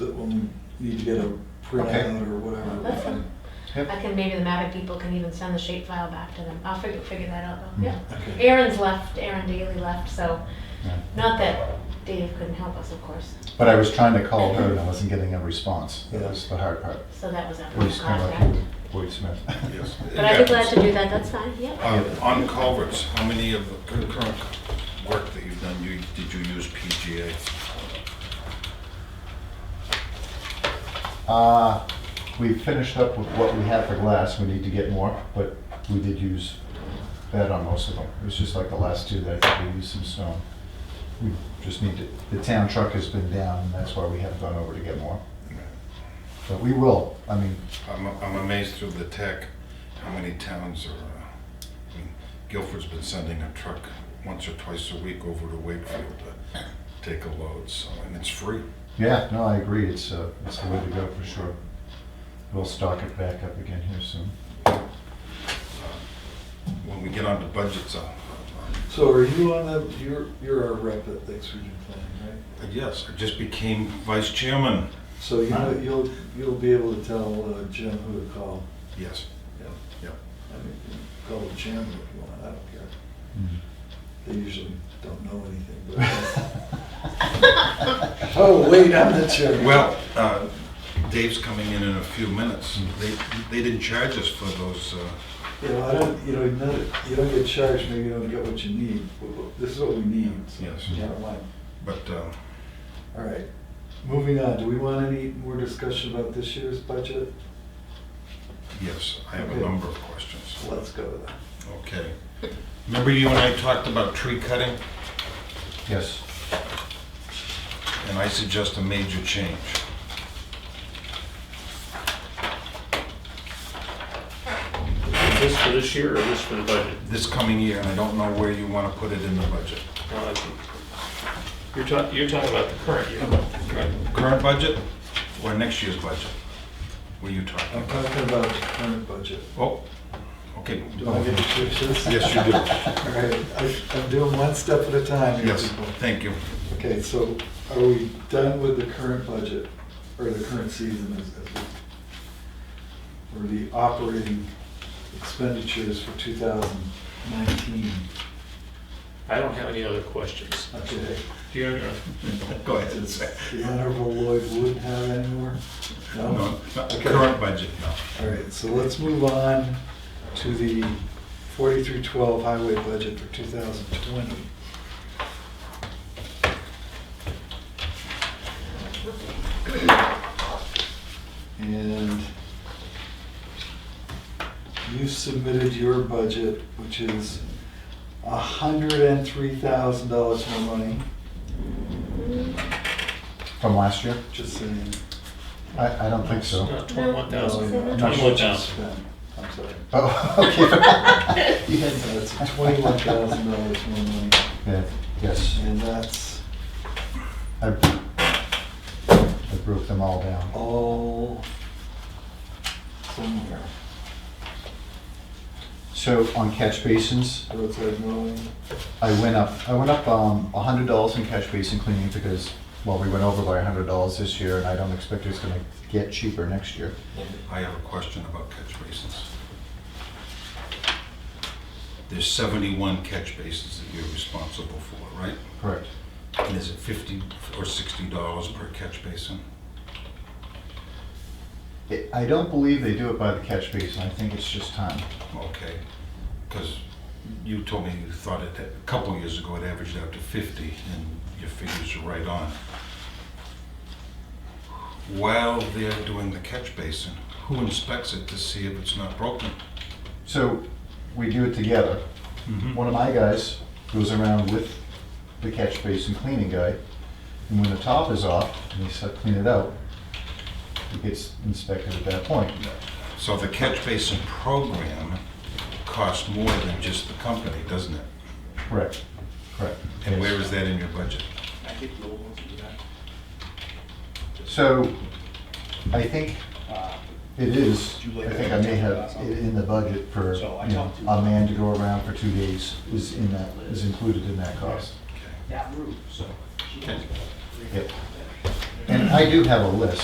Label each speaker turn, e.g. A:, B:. A: and you need to get a printout or
B: That's
A: whatever.
B: fine. I can, maybe the Mavic people can even send the shape file back to them. I'll figure, figure that out though, yeah.
A: Okay.
B: Aaron's left, Aaron Daly left, so,
C: Yeah.
B: not that Dave couldn't help us, of course,
C: But I was trying to call her and I wasn't getting a response. That
A: Yeah.
C: was the hard part.
B: so that was our
C: Voice kind of
B: contact.
C: like voice Smith.
D: Yes.
B: But I'd be glad to do that, that's fine, yeah.
D: Uh, On culverts, how many of the concurrent work that you've done, you, did you use PGA?
C: Uh, we finished up with what we had for glass. We need to get more, but we did use that on most of them. It was just like the last two that I think we used some stone. We just need to, the town truck has been down and that's why we haven't gone over to get more. But we will. I mean,
D: I'm, I'm amazed through the tech, how many towns are, uh, I mean, Guilford's been sending a truck once or twice a week over to Wakefield to take a load, so, and it's free.
C: yeah, no, I agree. It's, uh, it's the way to go for sure. We'll stock it back up again here soon.
D: When we get onto budgets, I'll,
A: So are you on the, you're, you're our rep at the Exeter Plan, right?
D: I'll- yes, I just became vice chairman,
A: So you know, you'll, you'll be able to tell uh, Jim who to call.
D: yes.
A: Yeah.
D: Yep.
A: I mean, you can call Jim if you want, I don't care.
C: Mm.
A: They usually don't know anything, but. Oh, wait, I'm the chairman.
D: Well, uh, Dave's coming in in a few minutes. They, they didn't charge us for those, uh,
A: You know, I don't, you know, you don't- you don't get charged, maybe you don't get what you need. but- but This is what we need, so.
D: Yes.
A: Bottom line.
D: but uh,
A: All right, moving on, do we want any more discussion about this year's budget?
D: yes, I have a
A: Okay.
D: number of questions.
A: Let's go with that.
D: Okay. Remember you and I talked about tree cutting,
C: Yes.
D: and I suggest a major change.
E: Is this for this year or is this for the budget?
D: This coming year, and I don't know where you want to put it in the budget.
E: Well, I think- You're talking, you're talking about the current year.
D: Current budget or next year's budget? Were you talking
A: I'm
D: about?
A: talking about the current budget.
D: Oh, okay.
A: Do I get to choose this?
D: Yes, you do.
A: All right, I- I'm doing one step at a time. here,
D: Yes,
A: people.
D: thank you.
A: Okay, so are we done with the current budget, or the current season as, as we, or the operating expenditures for 2019?
E: I don't have any other questions.
A: Okay,
E: Do you have any?
D: Go ahead and say.
A: the Honorable Lloyd Wood have any more?
D: No, not the current budget, no.
A: All right, so let's move on to the 4312 highway budget for 2020. And you submitted your budget, which is $103,000 more money,
B: Mm.
C: From last year?
A: just saying.
C: I, I don't think so.
E: Not twenty-one
A: No,
E: thousand.
A: not
E: Twenty-one
A: what you
E: thousand.
A: spent. I'm sorry.
C: Oh, okay. You had
A: So
C: that.
A: it's uh, twenty-one thousand dollars more money,
C: Yeah, yes,
A: and that's
C: I, I broke them all down.
A: all somewhere.
C: So on catch basins,
A: Roadside mowing,
C: I went up, I went up, um, a hundred dollars in catch basin cleaning because, well, we went over by a hundred dollars this year and I don't expect it's gonna get cheaper next year.
D: I have a question about catch basins. There's 71 catch basins that you're responsible for, right?
C: Correct.
D: And is it 50 or 60 dollars per catch basin?
C: It- I don't believe they do it by the catch basin, I think it's just time.
D: Okay, because you told me you thought it, a couple years ago, it averaged out to 50, and your figures are right on. While they're doing the catch basin, who inspects it to see if it's not broken?
C: So, we do it together.
D: Mm-hmm.
C: One of my guys goes around with the catch basin cleaning guy, and when the top is off, and they start clean it out, it gets inspected at that point.
D: So the catch basin program costs more than just the company, doesn't it?
C: Correct, correct.
D: And where is that in your budget?
C: So, I think it is, I think I may have it in the budget for, you know, a man to go around for two days is in that, is included in that cost.
D: Okay.
F: that route, so. she
D: Okay.
F: knows better.
C: Yep. And I do have a list,